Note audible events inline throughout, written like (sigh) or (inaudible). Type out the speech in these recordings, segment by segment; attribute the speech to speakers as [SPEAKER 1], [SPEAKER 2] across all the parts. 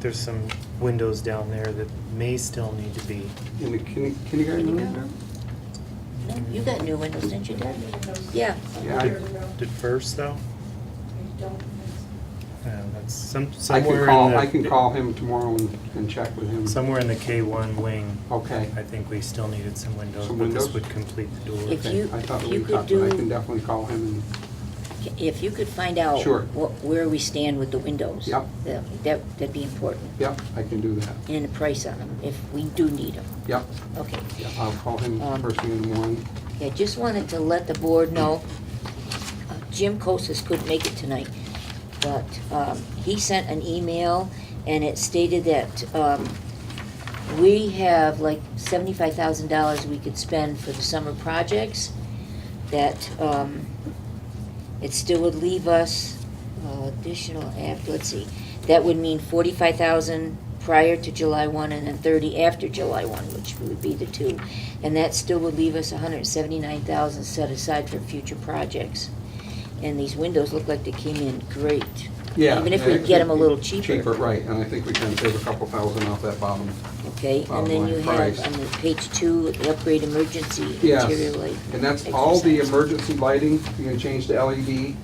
[SPEAKER 1] there's some windows down there that may still need to be.
[SPEAKER 2] In the kin- kindergarten
[SPEAKER 3] There you
[SPEAKER 2] room?
[SPEAKER 3] No, You got new windows, didn't you, Dad? Yeah.
[SPEAKER 2] Yeah, I-
[SPEAKER 1] Did first though? Yeah, that's some,
[SPEAKER 2] I
[SPEAKER 1] somewhere
[SPEAKER 2] can
[SPEAKER 1] in
[SPEAKER 2] call,
[SPEAKER 1] the-
[SPEAKER 2] I can call him tomorrow and, and check with him.
[SPEAKER 1] Somewhere in the K one wing,
[SPEAKER 2] Okay,
[SPEAKER 1] I think we still needed some windows,
[SPEAKER 2] Some
[SPEAKER 1] but this
[SPEAKER 2] windows?
[SPEAKER 1] would complete the
[SPEAKER 3] If
[SPEAKER 1] door.
[SPEAKER 2] okay.
[SPEAKER 3] you-
[SPEAKER 2] I thought
[SPEAKER 3] if
[SPEAKER 2] we
[SPEAKER 3] you could
[SPEAKER 2] talked, but I
[SPEAKER 3] do-
[SPEAKER 2] can definitely call him
[SPEAKER 3] If you could find out
[SPEAKER 2] Sure.
[SPEAKER 3] what, where we stand with the windows.
[SPEAKER 2] Yep.
[SPEAKER 3] that- That, that'd be important,
[SPEAKER 2] and, yep, I can do that.
[SPEAKER 3] and the price on them, if we do need them.
[SPEAKER 2] Yep,
[SPEAKER 3] Okay.
[SPEAKER 2] yep, I'll call him
[SPEAKER 3] Um,
[SPEAKER 2] first thing in the morning.
[SPEAKER 3] Yeah, just wanted to let the board know, uh, Jim Kosis couldn't make it tonight, but um, he sent an email, and it stated that um, we have like seventy-five thousand dollars we could spend for the summer projects, that um, it still would leave us uh, additional, af- let's see, that would mean forty-five thousand prior to July one and then thirty after July one, which would be the two. And that still would leave us hundred and seventy-nine thousand set aside for future projects. And these windows look like they came in great.
[SPEAKER 2] Yeah.
[SPEAKER 3] Even if we get them a little cheaper.
[SPEAKER 2] Cheaper, right, and I think we can save a couple thousand off that bottom.
[SPEAKER 3] Okay, and
[SPEAKER 2] Bottom
[SPEAKER 3] then
[SPEAKER 2] line
[SPEAKER 3] you
[SPEAKER 2] price.
[SPEAKER 3] have on the page two, the upgrade emergency
[SPEAKER 2] Yes.
[SPEAKER 3] interior light.
[SPEAKER 2] And that's all the
[SPEAKER 3] exercise.
[SPEAKER 2] emergency lighting, you're gonna change to LED,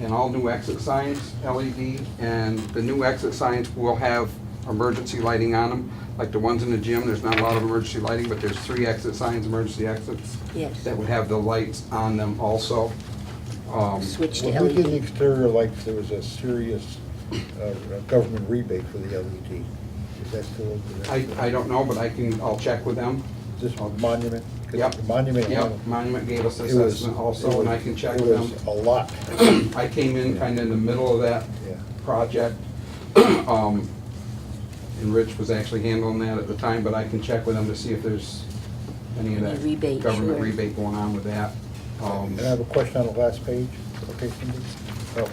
[SPEAKER 2] and all new exit signs, LED, and the new exit signs will have emergency lighting on them. Like the ones in the gym, there's not a lot of emergency lighting, but there's three exit signs, emergency exits, that
[SPEAKER 3] Yes,
[SPEAKER 2] would have the lights on them also. Um,
[SPEAKER 3] switch to
[SPEAKER 4] When we did the
[SPEAKER 3] LED.
[SPEAKER 4] exterior lights, there was a serious uh, government rebate for the LED. Is that still open?
[SPEAKER 2] I, I don't know, but I can, I'll check with them.
[SPEAKER 4] This monument? 'Cause
[SPEAKER 2] Yep.
[SPEAKER 4] the Monument.
[SPEAKER 2] Yep, Monument gave us
[SPEAKER 4] it was-
[SPEAKER 2] assessment also, and I can check with them.
[SPEAKER 4] It was a lot,
[SPEAKER 2] I came in kind of in the middle of that
[SPEAKER 4] yeah.
[SPEAKER 2] project. Um, And Rich was actually handling that at the time, but I can check with him to see if there's any of
[SPEAKER 3] Any
[SPEAKER 2] that
[SPEAKER 3] rebate,
[SPEAKER 2] government
[SPEAKER 3] sure.
[SPEAKER 2] rebate going on with that. Um,
[SPEAKER 4] And I have a question on the last page, okay, Cindy? Oh,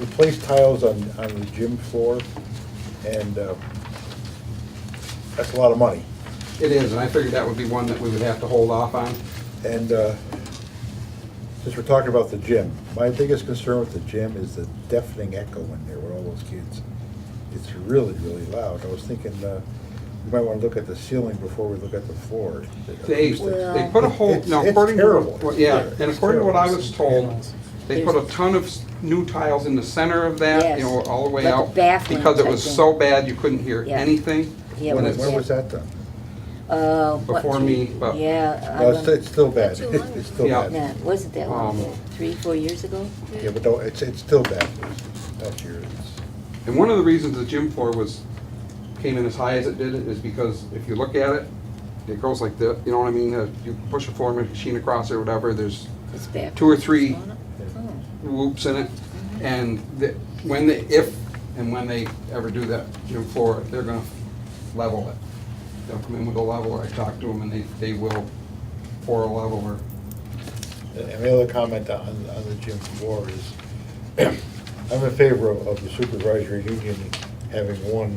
[SPEAKER 4] Replace tiles on, on the gym floor, and uh, that's a lot of money.
[SPEAKER 2] It is, and I figured that would be one that we would have to hold off on.
[SPEAKER 4] And uh, since we're talking about the gym, my biggest concern with the gym is the deafening echo in there with all those kids. It's really, really loud. I was thinking, uh, we might want to look at the ceiling before we look at the floor.
[SPEAKER 2] They, they put a whole,
[SPEAKER 4] It's-
[SPEAKER 2] now
[SPEAKER 4] it's
[SPEAKER 2] according to.
[SPEAKER 4] terrible.
[SPEAKER 2] well, Yeah, and
[SPEAKER 4] It's
[SPEAKER 2] according to what I was
[SPEAKER 1] terrible.
[SPEAKER 2] told, they put a ton of s- new tiles in the center of that, you know,
[SPEAKER 3] Yes,
[SPEAKER 2] all the way
[SPEAKER 3] like a
[SPEAKER 2] out.
[SPEAKER 3] bathroom
[SPEAKER 2] Because it
[SPEAKER 3] type
[SPEAKER 2] was
[SPEAKER 3] thing.
[SPEAKER 2] so bad, you couldn't hear
[SPEAKER 3] Yeah.
[SPEAKER 2] anything.
[SPEAKER 3] Yeah,
[SPEAKER 2] When
[SPEAKER 4] When
[SPEAKER 3] it's-
[SPEAKER 2] it's-
[SPEAKER 4] when was that done?
[SPEAKER 3] Uh, what,
[SPEAKER 2] Before
[SPEAKER 3] three-
[SPEAKER 2] me, but-
[SPEAKER 3] Yeah.
[SPEAKER 4] No, it's,
[SPEAKER 3] um,
[SPEAKER 4] it's still
[SPEAKER 5] Not
[SPEAKER 4] bad.
[SPEAKER 5] too long
[SPEAKER 4] It's still
[SPEAKER 2] ago.
[SPEAKER 4] bad.
[SPEAKER 3] No, it wasn't that long ago,
[SPEAKER 2] Um,
[SPEAKER 3] three, four years ago?
[SPEAKER 4] Yeah, but don't, it's, it's still bad. That's your, it's-
[SPEAKER 2] And one of the reasons the gym floor was, came in as high as it did is because if you look at it, it goes like this, you know what I mean? Uh, You push a form machine across or whatever, there's
[SPEAKER 3] It's back.
[SPEAKER 2] two or three
[SPEAKER 3] Oh,
[SPEAKER 2] whoops in it. And the- when they, if and when they ever do that gym floor, they're gonna level it. They'll come in with a leveler, I talked to them, and they, they will pour a leveler.
[SPEAKER 4] And my other comment on, on the gym floor is, (clears throat) I'm in favor of of the supervisory union having one,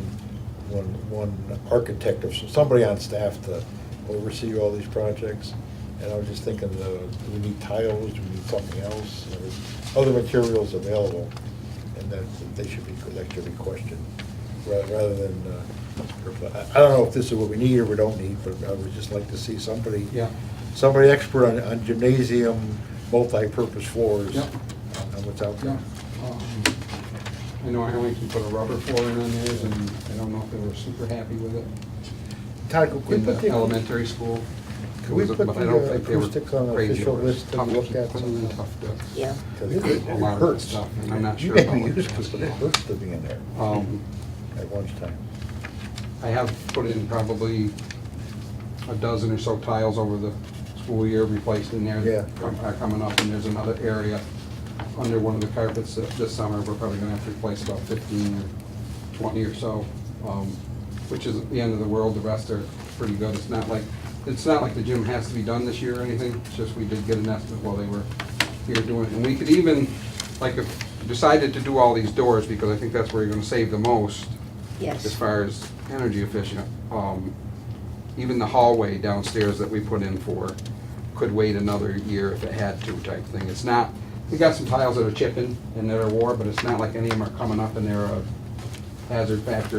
[SPEAKER 4] one, one architect or some- somebody on staff to oversee all these projects. And I was just thinking, uh, do we need tiles, do we need something else? You know, There's other materials available, and that, they should be, that should be questioned, ra- rather than, uh, I I don't know if this is what we need or we don't need, but I would just like to see somebody
[SPEAKER 2] Yeah.
[SPEAKER 4] somebody expert on, on gymnasium multi-purpose floors Uh,
[SPEAKER 2] Yep.
[SPEAKER 4] on on what's out there.
[SPEAKER 2] Um, I know Arlington put a rubber floor in on theirs, and I don't know if they were super happy with it.
[SPEAKER 4] Todd, could we
[SPEAKER 2] in
[SPEAKER 4] put
[SPEAKER 2] the
[SPEAKER 4] the,
[SPEAKER 2] elementary school.
[SPEAKER 4] Could we put
[SPEAKER 2] But I don't
[SPEAKER 4] the, uh,
[SPEAKER 2] think they were
[SPEAKER 4] acoustics on the
[SPEAKER 2] crazy
[SPEAKER 4] official
[SPEAKER 2] over it.
[SPEAKER 4] list to
[SPEAKER 2] Tough-
[SPEAKER 4] look at
[SPEAKER 2] tough-
[SPEAKER 4] some-
[SPEAKER 2] tough to-
[SPEAKER 3] Yeah,
[SPEAKER 4] because it it
[SPEAKER 2] A lot of
[SPEAKER 4] hurts.
[SPEAKER 2] stuff, and I'm
[SPEAKER 4] (laughs)
[SPEAKER 2] not
[SPEAKER 4] You
[SPEAKER 2] sure
[SPEAKER 4] made
[SPEAKER 2] about
[SPEAKER 4] me
[SPEAKER 2] what
[SPEAKER 4] use
[SPEAKER 2] it
[SPEAKER 4] this,
[SPEAKER 2] is.
[SPEAKER 4] but it hurts to be in there
[SPEAKER 2] Um,
[SPEAKER 4] at lunchtime.
[SPEAKER 2] I have put in probably a dozen or so tiles over the school year, replaced in there.
[SPEAKER 4] Yeah.
[SPEAKER 2] that Are coming up, and there's another area under one of the carpets that this summer, we're probably gonna have to replace about fifteen or twenty or so, um, which isn't the end of the world, the rest are pretty good. It's not like, it's not like the gym has to be done this year or anything, it's just we did get an estimate while they were here doing it. And we could even, like, if decided to do all these doors, because I think that's where you're gonna save the most, as
[SPEAKER 3] yes.
[SPEAKER 2] far as energy efficient. Um, Even the hallway downstairs that we put in for could wait another year if it had to type thing. It's not, we got some tiles that are chipping and that are worn, but it's not like any of them are coming up and they're a hazard factor